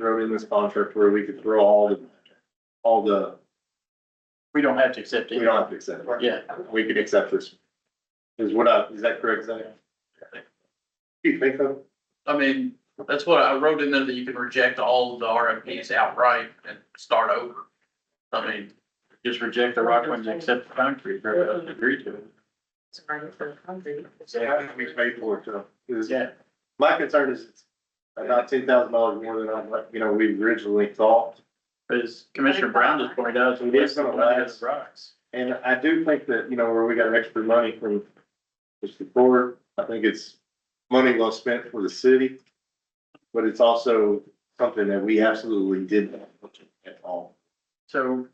wrote in this contract where we could throw all the, all the, We don't have to accept we it. don't have to accept it. Yeah, We could accept this. Is what I, is that correct, Zach? Do you think so? I mean, that's what I wrote in there that you can reject all of the RFPs outright and start over. I mean, just reject the rock ones, and accept the concrete, or uh, agree to it. Sorry for the concrete. So how did we pay for it though? Is- Yeah, My concern is it's about ten thousand dollars more than I, you know, we originally thought. but as Commissioner Brown just pointed out, It is gonna last. the rocks. And I do think that, you know, where we got extra money from this before, I think it's money well spent for the city. But it's also something that we absolutely did not look at all. So.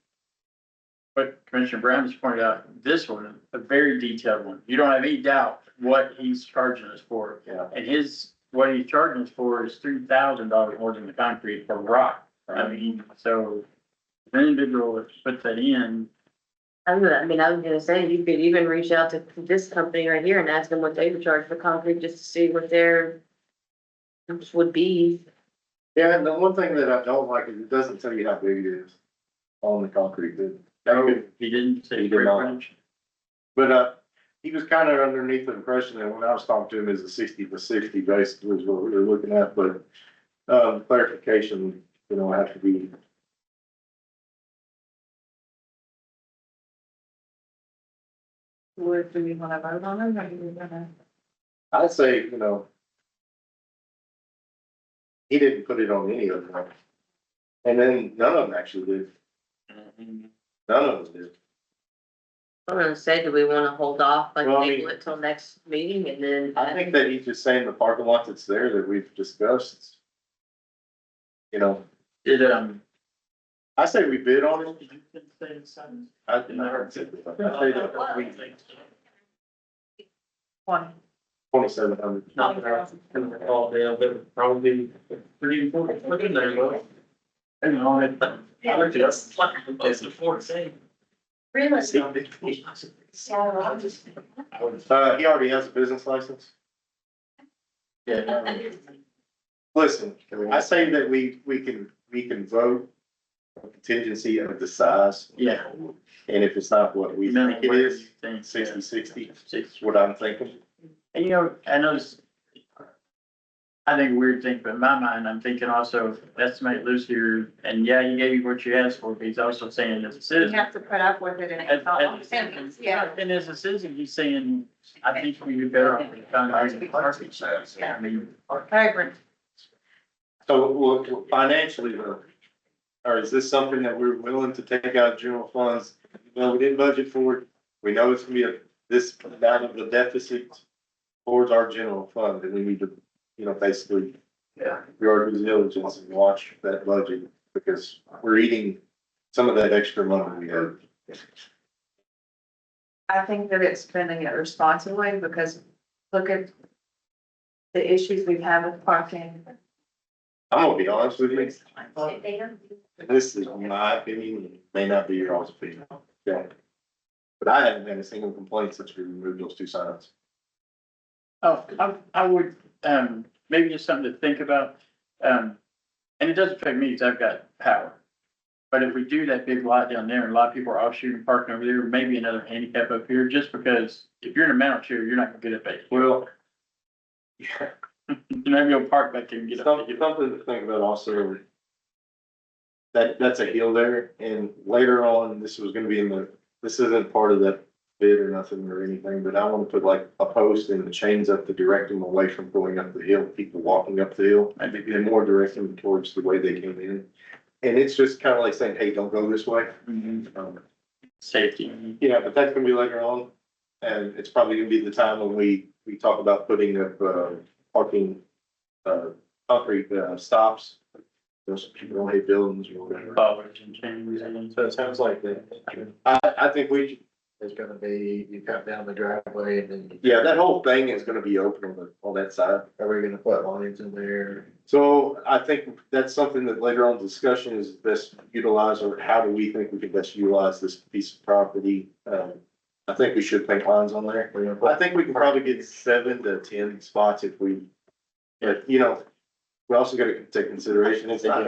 But Commissioner Brown just pointed out, this one, a very detailed one. You don't have any doubt what he's charging us for. Yeah. And his, what he's charging us for is three thousand dollars more than the concrete for rock. I Right. mean, so if an individual that puts that in, I don't know, I mean, I was gonna say, you could even reach out to this company right here and ask them what they would charge for concrete, just to see what their numbers would be. Yeah, and the one thing that I don't like is it doesn't tell you how big it is on the concrete bid. no, he didn't say. He did not. fringe. But, uh, he was kind of underneath the impression that when I was talking to him, it was a sixty to sixty basically was what we were looking at, but, um, clarification, you know, have to be Would, do we wanna vote on them, or do we wanna? I'd say, you know. He didn't put it on any of them. And then none of them actually did, um, none of them did. I'm gonna say, do we wanna hold off, like, Well, I table mean- it till next meeting and then? I think that he's just saying the parking lot that's there that we've discussed. You know, Did, um. I say we bid on it. I, I say that we, One. twenty-seven hundred. Not that I was gonna recall, Dale, but it would probably be pretty important, look in there, though. And all that. I looked it up. It's the fourth thing. Really? I would've- Uh, he already has a business license. Yeah. Listen, I say that we, we can, we can vote on contingency of the size. Yeah. And if it's not what we think it is. Thing, Sixty, sixty, Six. is what I'm thinking. And you know, I know this. I think weird thing, but in my mind, I'm thinking also estimate loose here, and yeah, you gave what you asked for, but he's also saying as a You citizen. have to put up with it and And- it's all and- yeah. And as a citizen, he's saying, I think we do better on the concrete and parking. I mean, I agree. So well, financially, though, or is this something that we're willing to take out general funds? Well, we didn't budget for it. We know it's gonna be a, this amount of the deficit towards our general fund, and we need to, you know, basically yeah, we are due diligence and watch that budget because we're eating some of that extra money we have. I think that it's spending it responsibly because look at the issues we've had with parking. I'm gonna be honest with you, this is my opinion, it may not be your all's opinion. Yeah. But I haven't had a single complaint since we removed those two signs. oh, I, I would, um, maybe just something to think about, um, and it does affect me, because I've got power. But if we do that big lot down there, and a lot of people are off shooting, parking over there, maybe another handicap up here, just because if you're in a mountain chair, you're not gonna get up at it. Well. Yeah, You're not gonna park back there and get up. some- something to think about also. That, that's a hill there and later on, this was gonna be in the, this isn't part of that bid or nothing or anything, but I wanna put like a post and the chains up to direct them away from going up the hill, people walking up the hill. Maybe And more direct them towards the way they came in. And it's just kinda like saying, hey, don't go this way. Mm-hmm. Um, Safety. Yeah, but that's gonna be later on, and it's probably gonna be the time when we, we talk about putting up, uh, parking, uh, concrete, uh, stops. Those people don't hate buildings or whatever. bollards and chains and- So it sounds like that, I, I think we, should- there's gonna be, you cut down the driveway and then yeah, that whole thing is gonna be open on the, on that side. are we gonna put lines in there? So I think that's something that later on discussion is best utilized, or how do we think we can best utilize this piece of property? Um, I think we should paint lines on there. We're gonna put I think we can probably get seven to ten spots if we, but, you know, we also gotta take consideration, it's not